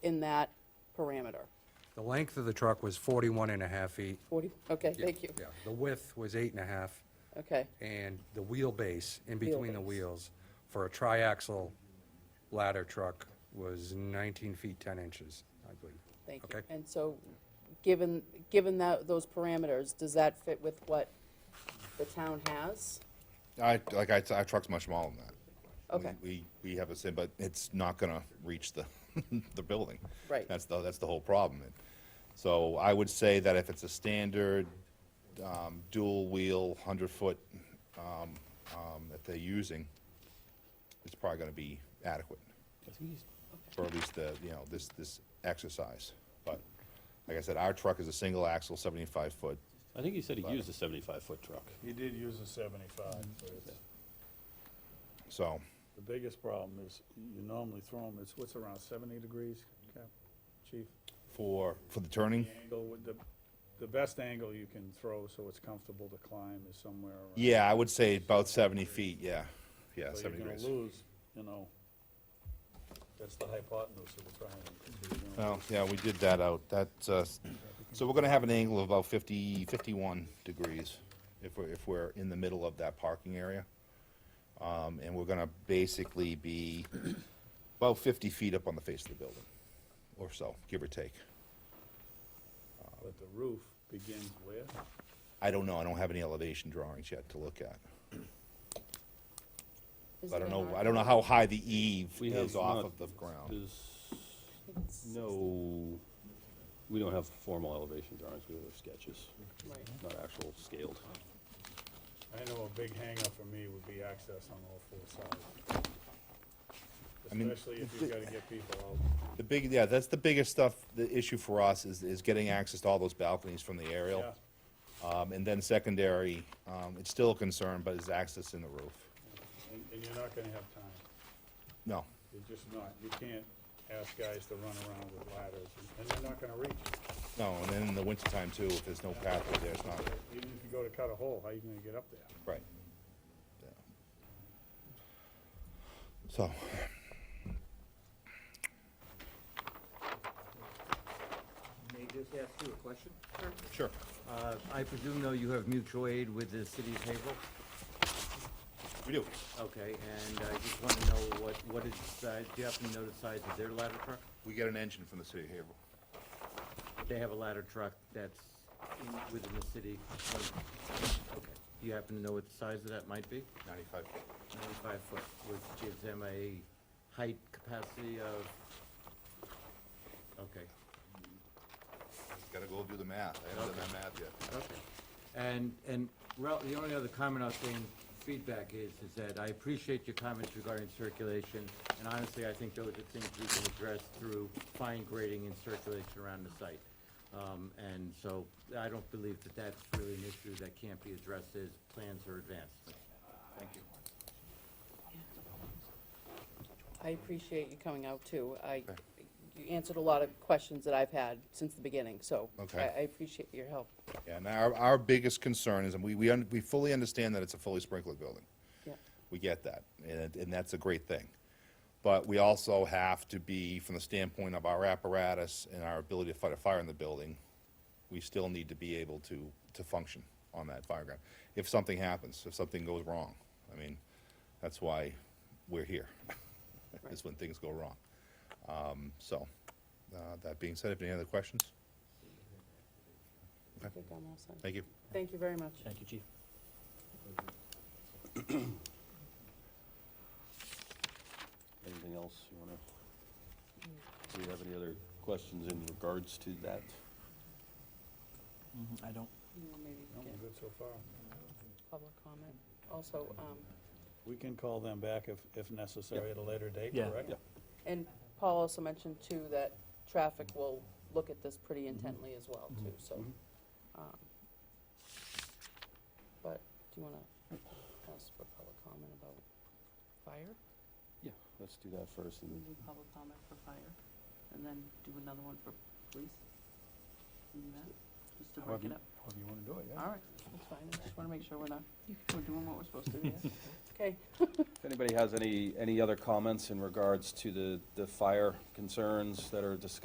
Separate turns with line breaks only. in that parameter?
The length of the truck was 41 and a half feet.
40, okay,
Yeah,
thank you.
Yeah, the width was eight and a half,
Okay,
and the wheelbase in between the
Wheelbase.
wheels for a triaxle ladder truck was 19 feet 10 inches, I believe.
thank you.
Okay.
And so, given, given that, those parameters, does that fit with what the town has?
I, like, I, our truck's much smaller than that.
Okay.
We, we we have a sim, but it's not gonna reach the, the building.
Right.
That's the, that's the whole problem. And So I would say that if it's a standard, um, dual-wheel, hundred-foot, um, um, that they're using, it's probably gonna be adequate. For at least the, you know, this, this exercise. But, like I said, our truck is a single axle, seventy-five foot.
I think he said he used a seventy-five foot truck.
He did use a seventy-five, but it's,
So,
the biggest problem is, you normally throw them, it's what's around seventy degrees, Cap, chief?
for, for the turning,
The Angle with the, the best angle you can throw so it's comfortable to climb is somewhere around.
Yeah, I would say about seventy feet, yeah, yeah,
So you're
seventy
gonna
degrees.
lose, you know, that's the hypotenuse of the triangle. so you're gonna
Well,
lose-
yeah, we did that out, that, uh, so we're gonna have an angle of about 50 51 degrees if we're, if we're in the middle of that parking area. Um, and we're gonna basically be about fifty feet up on the face of the building, or so, give or take.
But the roof begins where?
I don't know, I don't have any elevation drawings yet to look at.
Is
I
it
don't
in
know,
our-
I don't know how high the eave
We have
is off
not-
of the ground.
There's no, we don't have formal elevation drawings, we have sketches,
Right.
not actual scaled.
I know a big hanger for me would be access on all four sides.
I mean,
Especially if
the-
you've gotta get people out.
The big, yeah, that's the biggest stuff, the issue for us is, is getting access to all those balconies from the aerial.
Yeah.
Um, and then secondary, um, it's still a concern, but is access in the roof?
And, and you're not gonna have time.
No,
You're just not. You can't ask guys to run around with ladders, and- and they're not gonna reach.
no, and then in the wintertime too, if there's no pathway there, it's not,
Even if you go to cut a hole, how you gonna get up there?
right. Yeah. So,
May I just ask you a question?
sure,
Uh, I presume, though, you have mutual aid with the city of Haverhill?
we do.
Okay, and I just want to know what, what is, the size- do you happen to know the size of their ladder truck?
We get an engine from the city of Haverhill.
They have a ladder truck that's in- within the city. Okay. Do you happen to know what the size of that might be?
Ninety-five.
Ninety-five foot, which gives them a height capacity of, okay,
Gotta go do the math, I haven't done that math yet.
Okay. And, and Ralph, the only other comment I'll say in feedback is, is that I appreciate your comments regarding circulation, and honestly, I think those are things we can address through fine grading and circulation around the site. Um, and so I don't believe that that's really an issue that can't be addressed as plans are advanced. Thank you.
I appreciate you coming out, too. I, you answered a lot of questions that I've had since the beginning, so I
Okay.
I appreciate your help.
Yeah, and our, our biggest concern is, and we, we, un- we fully understand that it's a fully sprinkled building.
Yeah.
We get that, and, and that's a great thing. But we also have to be, from the standpoint of our apparatus and our ability to fight a fire in the building, we still need to be able to, to function on that fire ground. If something happens, if something goes wrong, I mean, that's why we're here, is when things go wrong. Um, so, uh, that being said, if any other questions,
I think I'm all set.
thank you.
Thank you very much.
Thank you, chief. Anything else you wanna, do you have any other questions in regards to that?
Mm-hmm, I don't.
You know, Maybe we
No, we're
get
good so far.
public comment. Also, um,
We can call them back if, if necessary at a later date,
Yeah.
correct?
Yeah.
and Paul also mentioned, too, that traffic will look at this pretty intently as well, too, so. um, But do you want to ask for public comment about fire?
Yeah, let's do that first, and
We do public comment for fire, and then do another one for police? Do that, just to break it up?
However you wanna do it, yeah.
All right, that's fine, I just want to make sure we're not, we're doing what we're supposed to do. Okay,
If anybody has any, any other comments in regards to the, the fire concerns that are discussed